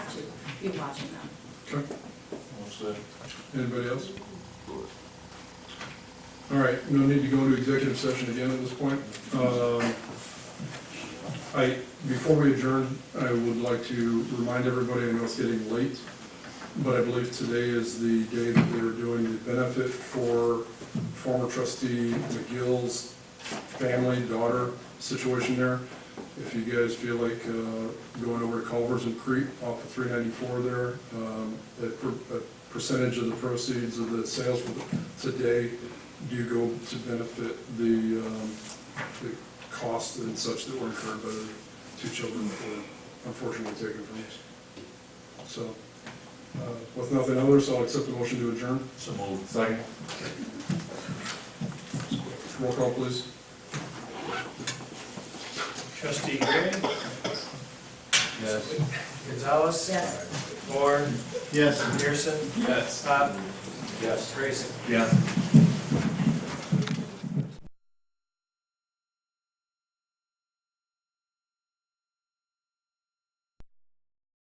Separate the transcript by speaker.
Speaker 1: be watching them.
Speaker 2: Okay.
Speaker 3: What's
Speaker 2: Anybody else? All right, no need to go into executive session again at this point. Um, I, before we adjourn, I would like to remind everybody, I know it's getting late, but I believe today is the day that they're doing the benefit for former trustee McGill's family, daughter situation there. If you guys feel like uh, going over to Culvers and Creek off of 394 there, um, a per- a percentage of the proceeds of the sales for the- today do go to benefit the, um, the costs and such that were incurred by the two children that were unfortunately taken from us. So, uh, with nothing else, I'll accept the motion to adjourn.
Speaker 3: So moved. Second.
Speaker 2: Roll call, please.
Speaker 4: Trustee Gray?
Speaker 3: Yes.
Speaker 4: Gonzalez?
Speaker 1: Yes.
Speaker 4: Moore?
Speaker 3: Yes.
Speaker 4: Pearson?
Speaker 3: Yes.
Speaker 4: Pop?
Speaker 3: Yes.
Speaker 4: Grayson?
Speaker 3: Yes.